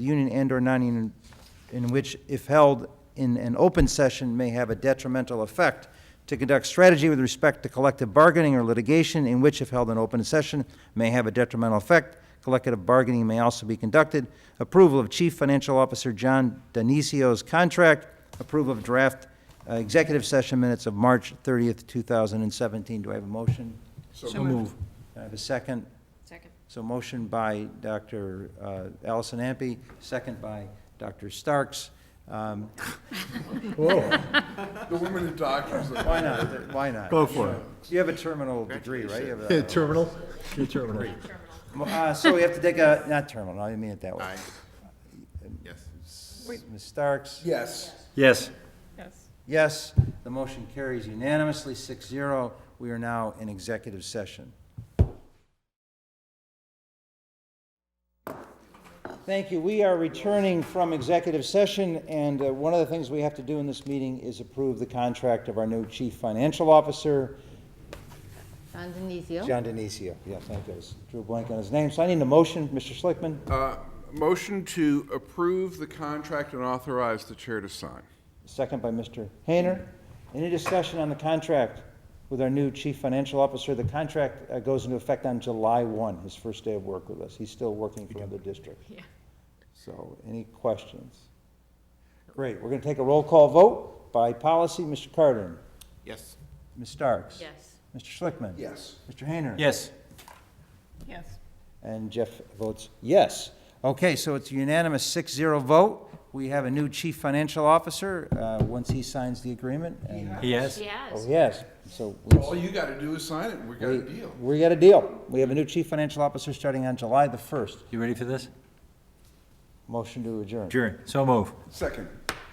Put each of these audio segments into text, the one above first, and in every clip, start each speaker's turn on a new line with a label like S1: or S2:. S1: union and/or non-union, in which, if held in an open session, may have a detrimental effect. To conduct strategy with respect to collective bargaining or litigation, in which, if held in open session, may have a detrimental effect. Collective bargaining may also be conducted. Approval of Chief Financial Officer John Donisio's contract. Approval of draft uh, executive session minutes of March 30th, 2017. Do I have a motion?
S2: So move.
S1: Do I have a second?
S3: Second.
S1: So motion by Dr. uh, Allison Ampe, second by Dr. Starks. Um,
S2: The women and doctors.
S1: Why not? Why not?
S4: Go for it.
S1: You have a terminal degree, right? You have
S4: Yeah,
S1: a-
S4: terminal, your terminal.
S1: Uh, So we have to take a, not terminal, I didn't mean it that way.
S5: Yes.
S1: Ms. Starks?
S2: Yes.
S4: Yes.
S3: Yes.
S1: Yes, the motion carries unanimously, 6-0. We are now in executive session. Thank you. We are returning from executive session, and uh, one of the things we have to do in this meeting is approve the contract of our new chief financial officer,
S3: John Denizio.
S1: John Denisio. Yeah, thank you. I was- Drew a blank on his name. So I need a motion, Mr. Schlickman.
S2: Motion to approve the contract and authorize the chair to sign.
S1: Second by Mr. Hayner. Any discussion on the contract with our new chief financial officer? The contract uh, goes into effect on July 1, his first day of work with us. He's still working for another district.
S3: Yeah.
S1: So any questions? Great, we're going to take a roll call vote by policy. Mr. Carden?
S5: Yes.
S1: Ms. Starks?
S3: Yes.
S1: Mr. Schlickman?
S2: Yes.
S1: Mr. Hayner?
S4: Yes.
S3: Yes.
S1: And Jeff votes yes. Okay, so it's a unanimous 6-0 vote. We have a new chief financial officer, uh, once he signs the agreement. and-
S4: Yes.
S1: Oh,
S3: Yes.
S1: yes, so. we-
S2: All you gotta do is sign it, and we got a deal.
S1: We got a deal. We have a new chief financial officer starting on July the 1st.
S4: You ready for this?
S1: Motion to adjourn.
S4: Sure. So move.
S2: Second.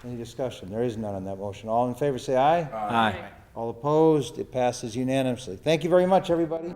S1: Any discussion? There is none on that motion. All in favor, say aye.
S4: Aye.
S1: All opposed, it passes unanimously. Thank you very much, everybody.